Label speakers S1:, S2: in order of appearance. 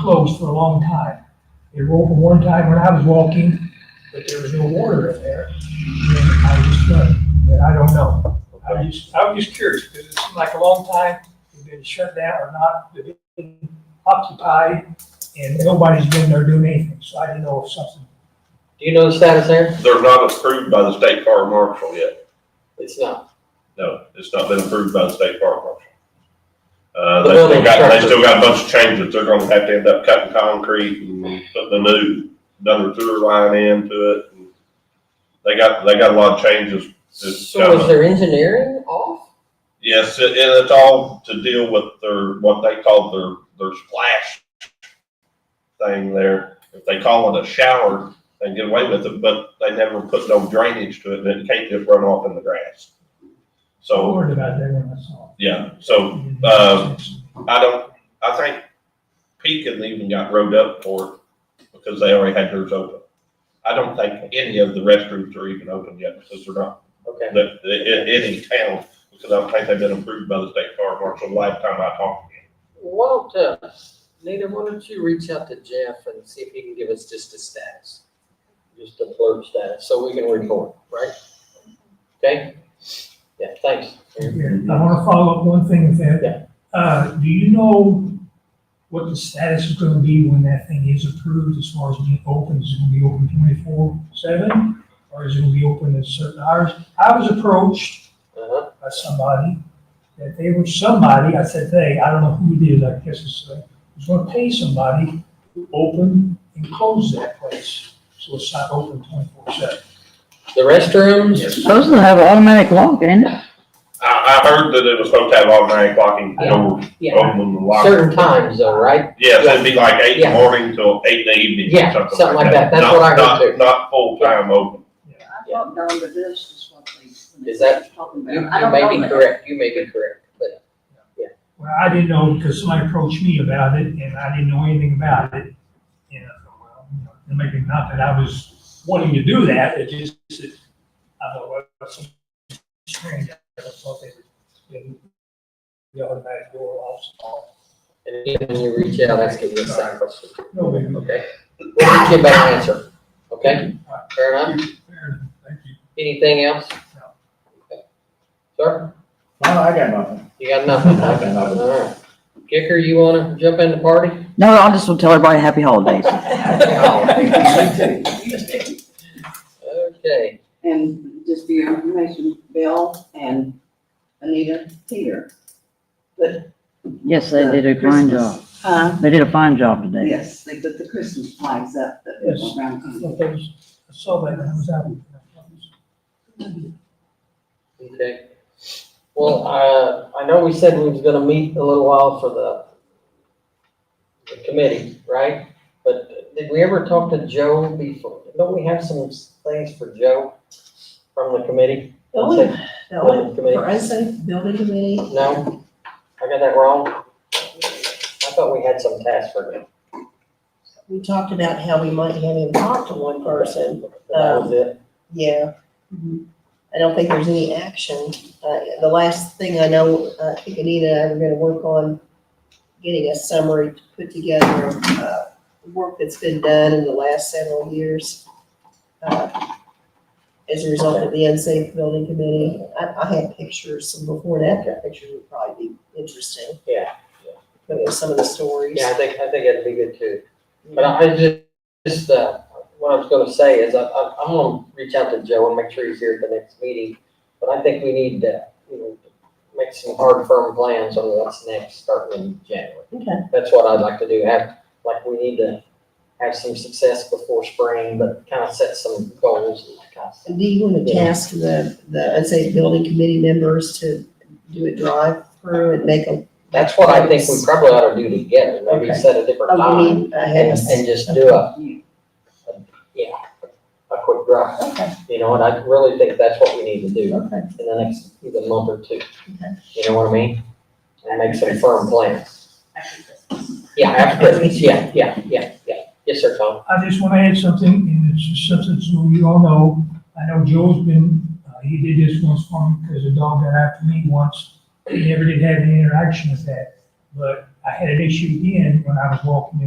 S1: closed for a long time. They were open one time when I was walking, but there was no water in there. And I just, uh, but I don't know. I was just, I was just curious, because it seemed like a long time, it's been shut down or not, but it's been occupied, and nobody's been there doing anything, so I didn't know if something.
S2: Do you know the status there?
S3: They're not approved by the state fire marshal yet.
S2: It's not.
S3: No, it's not been approved by the state fire marshal. Uh,
S2: The
S3: they still
S2: building
S3: got, they
S2: structure.
S3: still got a bunch of changes. They're gonna have to end up cutting concrete and putting the new, another sewer line into it. They got, they got a lot of changes. It's
S2: So is
S3: coming.
S2: their engineering off?
S3: Yes, it- and it's all to deal with their, what they call their, their splash thing there. If they call it a shower, they get away with it, but they never put no drainage to it, and it can't just run off in the grass.
S1: I
S3: So,
S1: worried about that when I saw.
S3: yeah, so
S1: it.
S3: Uh, I don't, I think Pekin even got rode up for it because they already had theirs open. I don't think any of the restrooms are even open yet because they're not
S2: Okay.
S3: that, in, any town, because I don't think they've been approved by the state fire marshal last time I talked. to him.
S2: Why don't, uh, Nita, why don't you reach out to Jeff and see if he can give us just a status? Just a blurb status, so we can report, right? Okay? Yeah, thanks.
S1: Yeah, I wanna follow up one thing with that. Uh, do you know what the status is gonna be when that thing is approved as far as being open? Is it gonna be open twenty-four seven? Or is it gonna be open at certain hours? I was approached
S2: Uh-huh.
S1: by somebody, that they were somebody, I said, they, I don't know who it is, I guess it's, uh, was gonna pay somebody to open and close that place. So it's not open twenty-four seven.
S2: The restrooms,
S4: Supposed to have automatic lock, ain't it?
S3: I, I heard that it was supposed to have automatic locking doors, open and lock.
S2: certain times though, right?
S3: Yes, it'd be like eight in the
S2: Yeah.
S3: morning till eight in the evening
S2: Yeah,
S3: or something.
S2: something like that. That's
S3: Not-
S2: what I heard
S3: not-
S2: too.
S3: Not full time open.
S5: I thought down to this is what they. when they
S2: Is that-
S5: were Talking
S2: You
S5: about. I
S2: you
S5: don't
S2: may
S5: know
S2: be
S5: that.
S2: correct, you may be correct, but
S1: Well, I didn't know because somebody approached me about it and I didn't know anything about it. And I thought, well, you know, and maybe not that I was wanting to do that, it just, it- I thought, well, that's something strange. I thought they were, you know, the automatic door locks off.
S2: and then when you reach out, ask him this side question,
S1: No, maybe.
S2: okay? We'll get you a better answer, okay? Fair enough?
S1: Fair enough. Thank you.
S2: Anything else?
S1: No.
S2: Okay. Sir,
S6: No, I got nothing.
S2: you got nothing?
S6: I got nothing.
S2: All right. Kicker, you wanna jump in the party?
S4: No, I just will tell everybody happy holidays.
S2: Okay,
S5: And just for your information, Bill and Anita here. But,
S4: Yes, they did a fine job.
S5: huh?
S4: They did a fine job today.
S5: Yes, they put the Christmas flags up that they
S1: Yes.
S5: went around.
S1: I
S5: on.
S1: thought that was- I saw that and I was out.
S2: okay. Well, uh, I know we said we was gonna meet a little while for the the committee, right? But did we ever talk to Joe before? Don't we have some things for Joe from the committee?
S7: The only, the only
S2: Building committee?
S7: Verizon uh, building committee,
S2: No? I got that wrong? I thought we had some task for him.
S7: we talked about how we might have him talk to one person,
S2: That was it?
S7: yeah. I don't think there's any action. Uh, the last thing I know, uh, I think Anita and I were gonna work on getting a summary to put together of, uh, work that's been done in the last several years. uh, As a result of the unsafe building committee. I, I had pictures, some before and after pictures would probably be interesting.
S2: Yeah.
S7: But there's some of the stories.
S2: Yeah, I think, I think that'd be good too. But I I just, just, uh, what I was gonna say is I, I, I'm gonna reach out to Joe and make sure he's here at the next meeting. But I think we need to, you know, make some hard firm plans on what's next, starting in January.
S7: Okay.
S2: That's what I'd like to do. Have, like, we need to have some success before spring, but kind of set some goals and that kind of stuff.
S7: Do you want to task the, the, I'd say, building committee members to do a drive-through and make a,
S2: That's what I think we probably ought to do together, maybe
S7: Okay.
S2: set a different
S7: oh, you
S2: time
S7: mean, I
S2: and,
S7: had
S2: and just do a, a- yeah, a quick drive.
S7: Okay,
S2: You know, and I really think that's what we need to do
S7: okay.
S2: in the next, either month or two. You know what I mean? And make some firm plans. Yeah, after Christmas, yeah, yeah, yeah, yeah. Yes, sir, Tom.
S1: I just want to add something, and it's just something so you all know. I know Joe's been, uh, he did this once for me because a dog got after me once. He never did have any interaction with that. But I had an issue again when I was walking in